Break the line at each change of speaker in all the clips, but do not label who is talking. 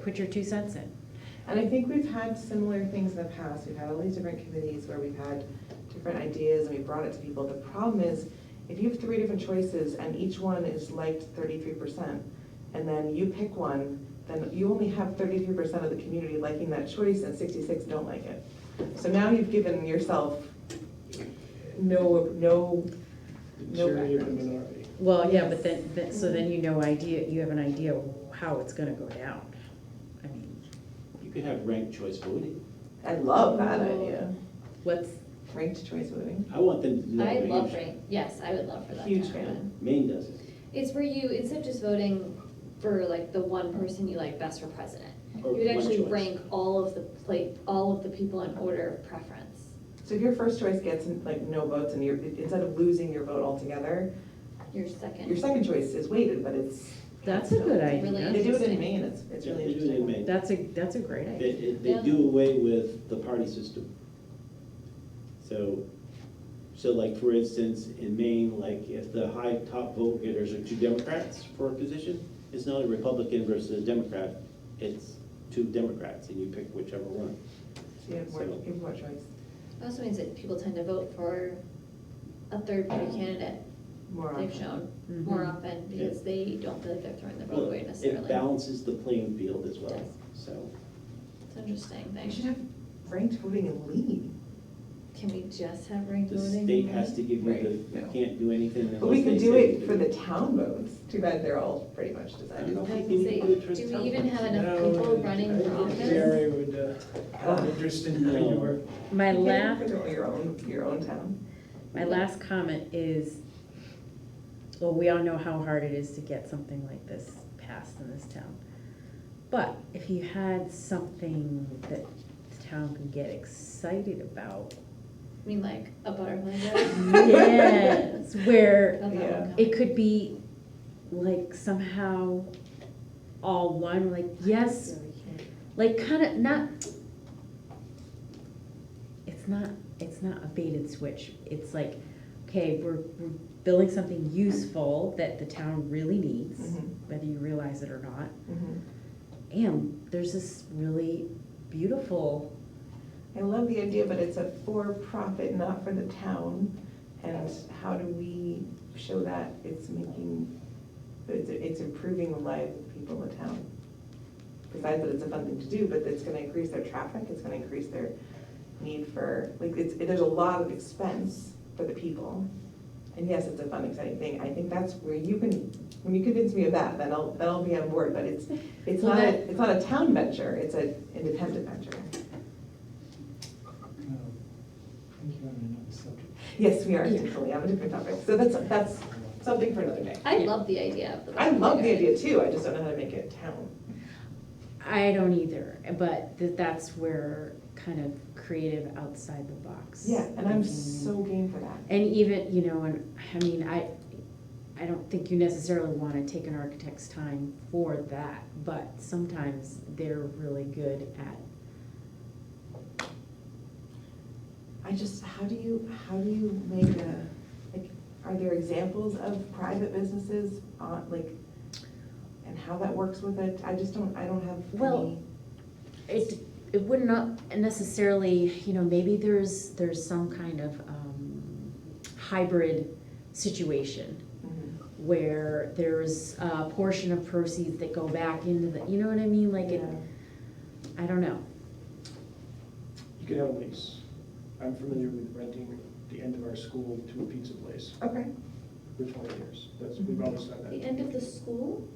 put your two cents in.
And I think we've had similar things in the past. We've had all these different committees where we've had different ideas and we brought it to people. The problem is, if you have three different choices and each one is liked thirty-three percent, and then you pick one, then you only have thirty-three percent of the community liking that choice and sixty-six don't like it. So now you've given yourself no, no, no
Majority of the
background.
minority.
Well, yeah, but then, then- so then you know idea, you have an idea how it's gonna go down. I mean,
You could have ranked choice voting.
I love that idea,
Oh.
what's,
ranked choice voting.
I want them to do that.
I
in
love
Hampshire.
rain, yes, I would love for that to
Huge
happen.
fan.
Maine does it.
It's where you, instead of just voting for like the one person you like best for president,
Or
you would
one
actually
choice.
rank all of the plate, all of the people in order of preference.
So if your first choice gets like no votes and you're, instead of losing your vote altogether,
Your
Your
second,
second choice is weighted, but it's.
that's a good
They
idea.
do it in Maine, it's, it's really
They do it in
interesting.
Maine.
That's a, that's a great
They,
idea.
it- they
Yeah.
do away with the party system. So, so like, for instance, in Maine, like, if the high top vote getters are two Democrats for a position, it's not a Republican versus a Democrat, it's two Democrats, and you pick whichever one.
So you have more, you have more choice,
It also means that people tend to vote for a third party candidate,
more
they've
options.
shown, more
Mm-hmm.
Mhm.
often, because they don't feel like they're throwing their vote
Well,
away
It
necessarily.
balances the playing field as well,
Yes.
so.
It's an interesting
They should
thing.
have ranked voting in Lee.
Can we just have ranked
The
voting?
state has to give
Right,
you the,
no.
you can't do anything unless they say.
But we could do
you
it for the town votes, too bad they're all pretty much decided.
I was gonna say, do we even have enough people running for
No, I think
office?
Jerry would uh, have interest in how you were.
My
You can't
last,
control Your own, your own town.
my last comment is, well, we all know how hard it is to get something like this passed in this town. But if you had something that the town can get excited about,
I mean, like, a butterfly vote?
yes, where
Not that
Yeah.
one
It could be like somehow all one, like yes, like kind of not. It's not. It's not a bait and switch. It's like, okay, we're, we're building something useful that the town really needs,
Mhm.
whether you realize it or not.
Mhm.
And there's this really beautiful.
I love the idea, but it's a for-profit, not for the town. And how do we show that it's making, it's, it's improving the lives of people in the town? Besides that it's a fun thing to do, but it's gonna increase their traffic, it's gonna increase their need for, like, it's, there's a lot of expense for the people. And yes, it's a fun, exciting thing. I think that's where you can, when you convince me of that, then I'll, then I'll be on board. But it's, it's
Well,
not,
that-
a- it's not a town venture, it's an independent venture.
um, I think you're on another subject.
Yes, we are
Yeah.
definitely on a different topic, so that's, that's something for another day.
I love the idea of the.
I love the
butterfly
idea too, I just don't know how to make it town.
I don't either, but th- that's where kind of creative outside the box.
Yeah, and I'm
thinking.
so game for that.
Mm-hmm. And even, you know, and, I mean, I, I don't think you necessarily wanna take an architect's time for that, but sometimes they're really good at,
I just, how do you, how do you make a, like, are there examples of private businesses on, like, and how that works with it? I just don't, I don't have
Well,
any.
it, it would not necessarily, you know, maybe there's, there's some kind of, um, hybrid situation
Mhm.
where there's a portion of proceeds that go back into the, you know what I mean, like, it,
Yeah.
I don't know.
You could have a lease. I'm familiar with renting the end of our school to a pizza place
Okay,
for twenty years. That's, we've always done
vote. The
that.
end of the school,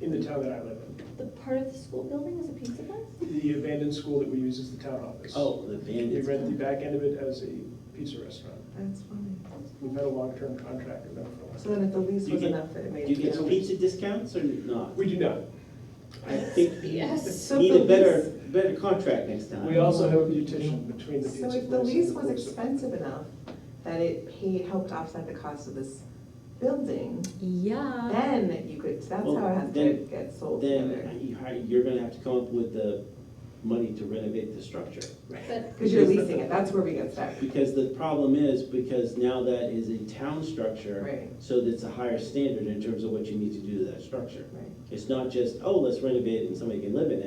In the town that I live in,
the part of the school building is a pizza place?
the abandoned school that we use as the town office.
Oh, the
We
bandits.
rent the back end of it as a pizza restaurant.
that's funny.
We've had a long-term contract with them for a while.
So then if the lease
You
was
get-
enough, that it
Do
made.
you
it
get
town.
pizza discounts or not?
We do not.
I think you
Yes.
So
need
the
a better, better contract next time.
We also have a mutation between the pizza
So
place
if
and
the lease was
cook's-
expensive enough that it paid, helped offset the cost of this building,
Yeah.
then you could, that's
Well,
how it has to
then-
get sold
Then
together.
you- how- you're gonna have to come up with the money to renovate the structure.
But
Because you're leasing it, that's where we get stuck.
Because the problem is, because now that is a town structure.
Right.
So that's a higher standard in terms of what you need to do to that structure.
Right.
It's not just, oh, let's renovate it and somebody can live in it.